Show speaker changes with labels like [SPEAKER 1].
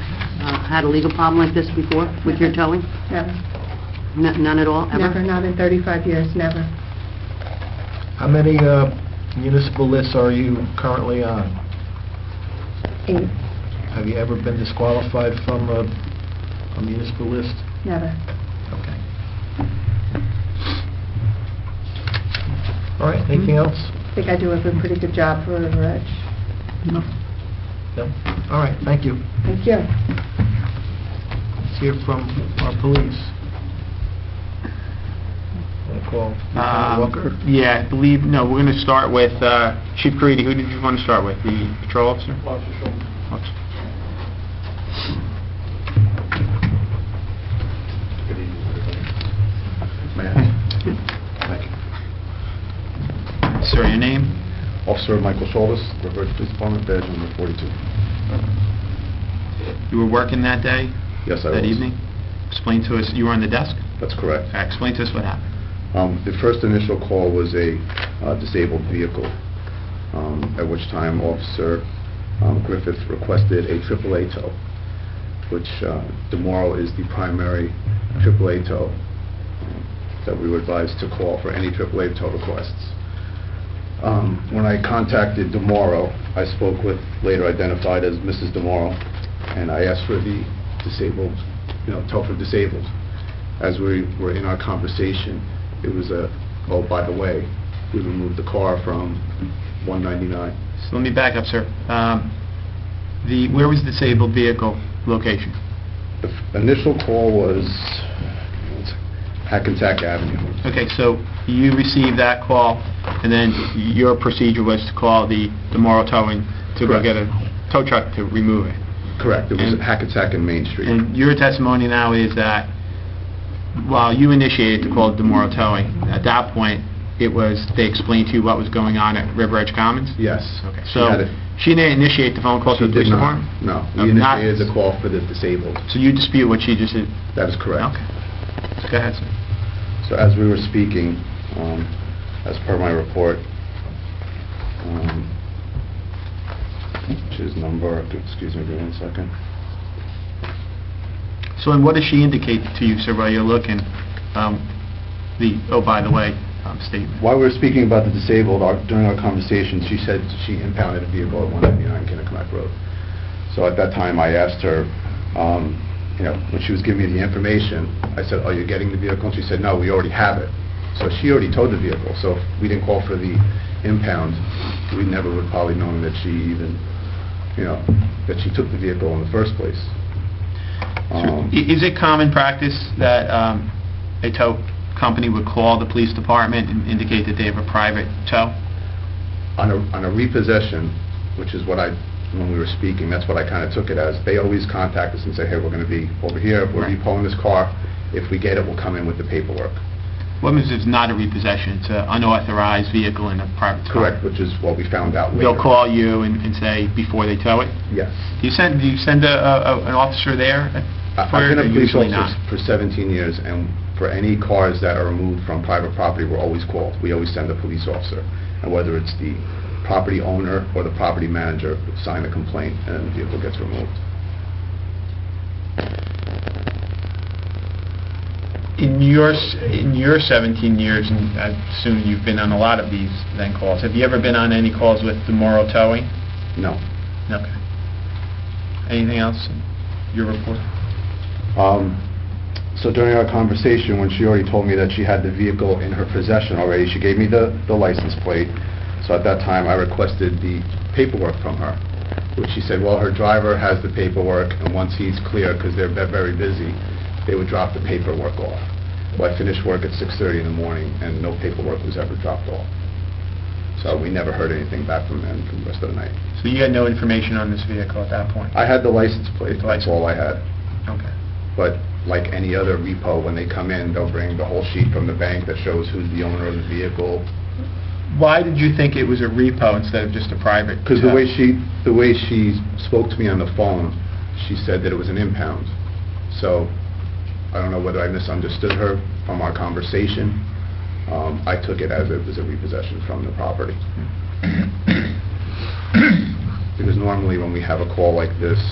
[SPEAKER 1] uh, had a legal problem like this before with your towing?
[SPEAKER 2] Never,
[SPEAKER 1] N- None at all, ever?
[SPEAKER 2] never, not in 35 years, never.
[SPEAKER 3] How many uh, municipal lists are you currently on?
[SPEAKER 2] Eight,
[SPEAKER 3] Have you ever been disqualified from a a municipal list?
[SPEAKER 2] never.
[SPEAKER 3] Okay. All right, anything else?
[SPEAKER 2] I think I do a good- pretty good job for River Edge.
[SPEAKER 3] No. No? All right, thank you.
[SPEAKER 2] Thank you.
[SPEAKER 3] Let's hear from our police. Want to call Lieutenant
[SPEAKER 4] Um,
[SPEAKER 3] Walker?
[SPEAKER 4] Yeah, I believe, no, we're going to start with uh, Chief Caridi. Who did you want to start with? The patrol officer? Officer.
[SPEAKER 5] Good evening, everybody. Thank you.
[SPEAKER 4] Sir, your name?
[SPEAKER 5] Officer Michael Shaldis, Riverhead Police Department, badge number 42.
[SPEAKER 4] You were working that day?
[SPEAKER 5] Yes, I was.
[SPEAKER 4] That evening? Explain to us, you were on the desk?
[SPEAKER 5] That's correct.
[SPEAKER 4] Uh, Explain to us what happened.
[SPEAKER 5] Um, The first initial call was a uh, disabled vehicle, um, at which time Officer um, Griffith requested a AAA tow, which uh, Demorro is the primary AAA tow um, that we were advised to call for any AAA tow requests. Um, When I contacted Demorro, I spoke with, later identified as Mrs. Demorro, and I asked for the disabled, you know, tow for disabled. As we were in our conversation, it was a, oh, by the way, we removed the car from 199.
[SPEAKER 4] So let me back up, sir. Um, The, where was the disabled vehicle location?
[SPEAKER 5] The f- initial call was Hackensack Avenue.
[SPEAKER 4] Okay, so you received that call, and then your procedure was to call the Demorro Towing to go
[SPEAKER 5] Correct.
[SPEAKER 4] get a tow truck to remove it?
[SPEAKER 5] Correct, it was
[SPEAKER 4] And-
[SPEAKER 5] Hackensack and Main Street.
[SPEAKER 4] And your testimony now is that while you initiated the call to Demoro Towing, at that point, it was, they explained to you what was going on at River Edge Commons?
[SPEAKER 5] Yes.
[SPEAKER 4] Okay,
[SPEAKER 5] She
[SPEAKER 4] so
[SPEAKER 5] had it.
[SPEAKER 4] she didn't initiate the phone call
[SPEAKER 5] She
[SPEAKER 4] to the
[SPEAKER 5] did
[SPEAKER 4] police
[SPEAKER 5] not.
[SPEAKER 4] department?
[SPEAKER 5] No,
[SPEAKER 4] Uh,
[SPEAKER 5] we
[SPEAKER 4] not-
[SPEAKER 5] initiated the call for the disabled.
[SPEAKER 4] So you dispute what she just did?
[SPEAKER 5] That is correct.
[SPEAKER 4] Okay. Go ahead, sir.
[SPEAKER 5] So as we were speaking, um, as per my report, um, which is number, excuse me, give me one second.
[SPEAKER 4] So and what does she indicate to you, sir, while you're looking, um, the, oh, by the way, um, statement?
[SPEAKER 5] While we were speaking about the disabled, our- during our conversation, she said she impounded a vehicle at 199 Kennecott Road. So at that time, I asked her, um, you know, when she was giving me the information, I said, "Are you getting the vehicle?" And she said, "No, we already have it." So she already towed the vehicle, so if we didn't call for the impound, we never would probably known that she even, you know, that she took the vehicle in the first place.
[SPEAKER 4] So
[SPEAKER 5] Um,
[SPEAKER 4] i- Is it common practice that um, a tow company would call the police department and indicate that they have a private tow?
[SPEAKER 5] on a, on a repossession, which is what I, when we were speaking, that's what I kind of took it as, they always contact us and say, hey, we're going to be over here, we're
[SPEAKER 4] Right.
[SPEAKER 5] repoing this car, if we get it, we'll come in with the paperwork.
[SPEAKER 4] What means it's not a repossession, it's an unauthorized vehicle in a private car?
[SPEAKER 5] Correct, which is what we found out later.
[SPEAKER 4] They'll call you and and say, before they tow it?
[SPEAKER 5] Yes.
[SPEAKER 4] Do you send, do you send a- a- a- an officer there?
[SPEAKER 5] I-
[SPEAKER 4] for
[SPEAKER 5] I've
[SPEAKER 4] it,
[SPEAKER 5] been
[SPEAKER 4] or
[SPEAKER 5] a police
[SPEAKER 4] usually
[SPEAKER 5] officer
[SPEAKER 4] not?
[SPEAKER 5] for 17 years, and for any cars that are removed from private property, we're always called. We always send a police officer, and whether it's the property owner or the property manager, sign the complaint, and then the vehicle gets removed.
[SPEAKER 4] In your, s- in your 17 years, and I assume you've been on a lot of these then calls, have you ever been on any calls with Demoro Towing?
[SPEAKER 5] No.
[SPEAKER 4] Okay. Anything else in your report?
[SPEAKER 5] Um, So during our conversation, when she already told me that she had the vehicle in her possession already, she gave me the the license plate. So at that time, I requested the paperwork from her, which she said, well, her driver has the paperwork, and once he's clear, because they're ve- very busy, they would drop the paperwork off. Well, I finished work at 6:30 in the morning, and no paperwork was ever dropped off. So we never heard anything back from them for the rest of the night.
[SPEAKER 4] So you had no information on this vehicle at that point?
[SPEAKER 5] I had the license plate, that's all I had.
[SPEAKER 4] Okay.
[SPEAKER 5] But like any other repo, when they come in, they'll bring the whole sheet from the bank that shows who's the owner of the vehicle.
[SPEAKER 4] Why did you think it was a repo instead of just a private?
[SPEAKER 5] Because the
[SPEAKER 4] tow?
[SPEAKER 5] way she, the way she spoke to me on the phone, she said that it was an impound. So I don't know whether I misunderstood her from our conversation. Um, I took it as it was a repossession from the property. Because normally when we have a call like this,